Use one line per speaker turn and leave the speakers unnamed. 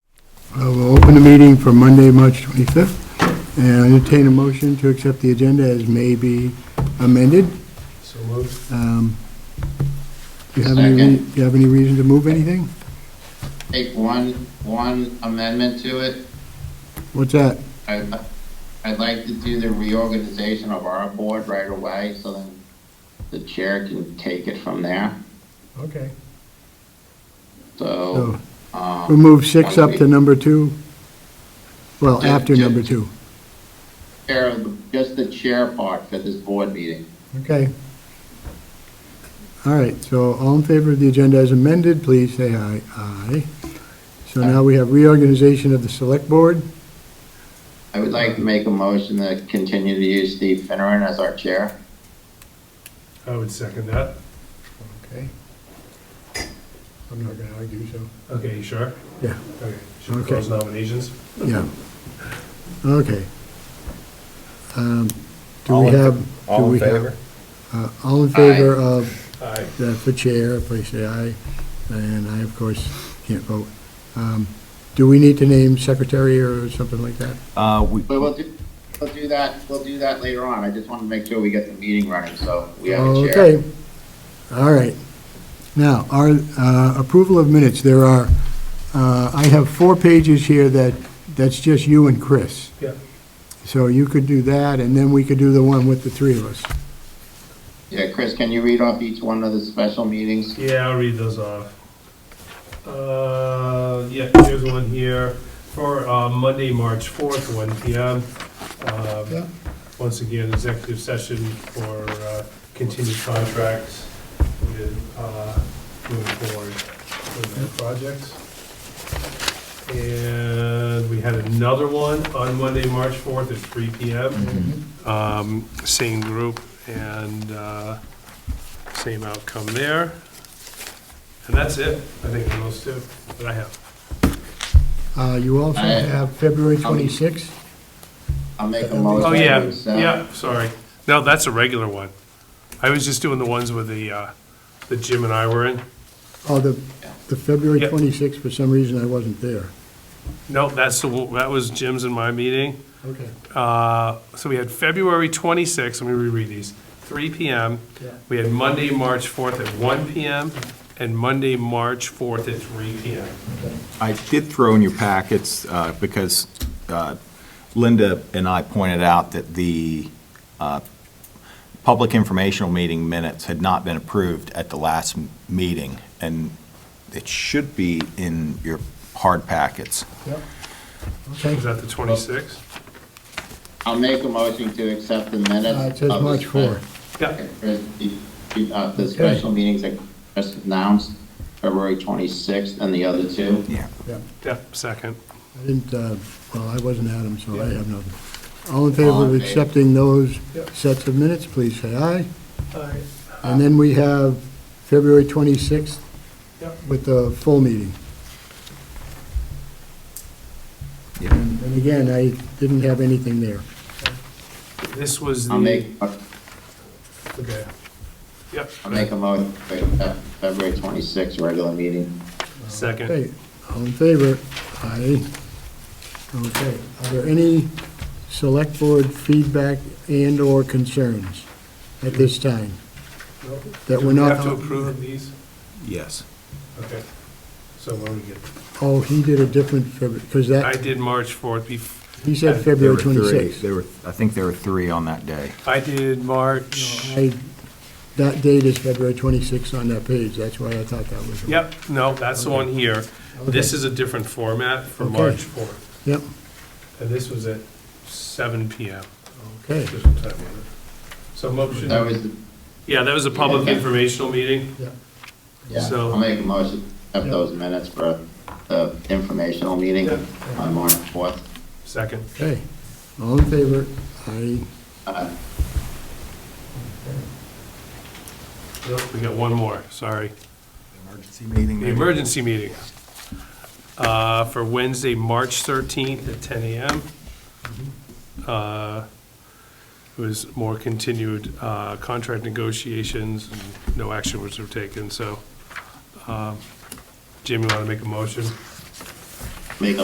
Uh, We'll open the meeting for Monday, March 25th, and entertain a motion to accept the agenda as may be amended.
So moved.
Um, Do you have any, re-
Second.
do you have any reason to move anything?
Take one, one amendment to it.
What's that?
I'd, I'd like to do the reorganization of our board right away, so then the chair can take it from there.
Okay.
So,
So
um.
we'll move six
why don't
up to
we-
number two, well,
Yeah,
after
yeah.
number two.
Chair, of the- just the chair part for this board meeting.
Okay. All right, so all in favor of the agenda as amended, please say aye. Aye. So now we have reorganization of the select board.
I would like to make a motion to continue to use Steve Finneran as our chair.
I would second that.
Okay. I'm not gonna argue, so.
Okay, you sure?
Yeah,
Okay. Should we
Okay.
close nominations?
yeah. Okay. Um, Do
All
we
in-
have? do
All
we
in
have-
favor?
uh, All in favor of
Aye.
the, for chair, please say aye. And I, of course, can't vote. Um, Do we need to name secretary or something like that?
Uh, we,
But we'll do, we'll do that, we'll do that later on. I just want to make sure we get the meeting running, so we have a chair.
Okay, all right. Now, our uh, approval of minutes, there are, uh, I have four pages here that, that's just you and Chris.
Yeah.
So you could do that, and then we could do the one with the three of us.
Yeah, Chris, can you read off each one of the special meetings?
Yeah, I'll read those off. Uh, yeah, here's one here for, uh, Monday, March fourth, one P M. Um, once again, executive session for, uh, continued contracts with, uh, moving forward with the projects. And we had another one on Monday, March fourth at three P M. Um, same group and, uh, same outcome there. And that's it, I think, for those two that I have.
Uh, You also
Aye.
have February 26th.
I'll make a motion.
Oh, yeah,
to accept.
yeah, sorry. No, that's a regular one. I was just doing the ones with the, uh, that Jim and I were in.
Oh, the, the February
Yeah.
26th, for some reason, I wasn't there.
No, that's the, one- that was Jim's and my meeting.
Okay.
Uh, So we had February 26th, let me reread these, 3 PM.
Yeah.
We had Monday, March 4th at 1 PM, and Monday, March 4th at 3 PM.
I did throw in your packets, uh, because uh, Linda and I pointed out that the uh, public informational meeting minutes had not been approved at the last m- meeting, and it should be in your hard packets.
Okay.
Is that the 26th?
I'll make a motion to accept the minutes.
Uh, It says
of the
March
spe-
4th.
Yeah,
uh, The special meetings that just announced, February 26th and the other two.
Yeah.
Yeah.
yeah, second.
I didn't, uh, well, I wasn't at them, so I
Yeah.
have nothing. All in favor of
All in favor.
accepting those
Yep.
sets of minutes, please say aye.
All right.
And then we have February 26th
Yep.
with the full meeting.
Yep.
And and again, I didn't have anything there.
This was the.
I'll make, I'll
Okay. Yep.
make a motion to accept February 26th regular meeting.
Second.
Okay, all in favor? Aye. Okay, are there any select board feedback and/or concerns at this time? That we're
Do we
not.
have to approve of these?
Yes.
Okay. So when we get,
Oh, he did a different, because
I
that,
did March 4th, bef-
he said
There
February
were three.
26th.
There were, I think there were three on that day.
I did March,
Oh, I, that date is February 26th on that page, that's why I thought that was.
yep, no, that's the one here. This
Okay.
is a different format for
Okay.
March 4th,
Yep,
and this was at seven PM.
okay,
This was time on it. So
That
motion,
was, the-
yeah, that was a public
Yeah.
informational meeting,
yeah,
yeah,
So-
I'll make a motion to accept
Yeah.
those minutes for the informational meeting
Yeah.
on March 4th.
second.
okay. All in favor? Aye.
Uh,
Nope, We got one more, sorry.
Emergency meeting.
The emergency meeting uh, for Wednesday, March 13th at 10 a.m. Uh, It was more continued uh, contract negotiations, uh, and no action was taken, so um, Jim, you want to make a motion?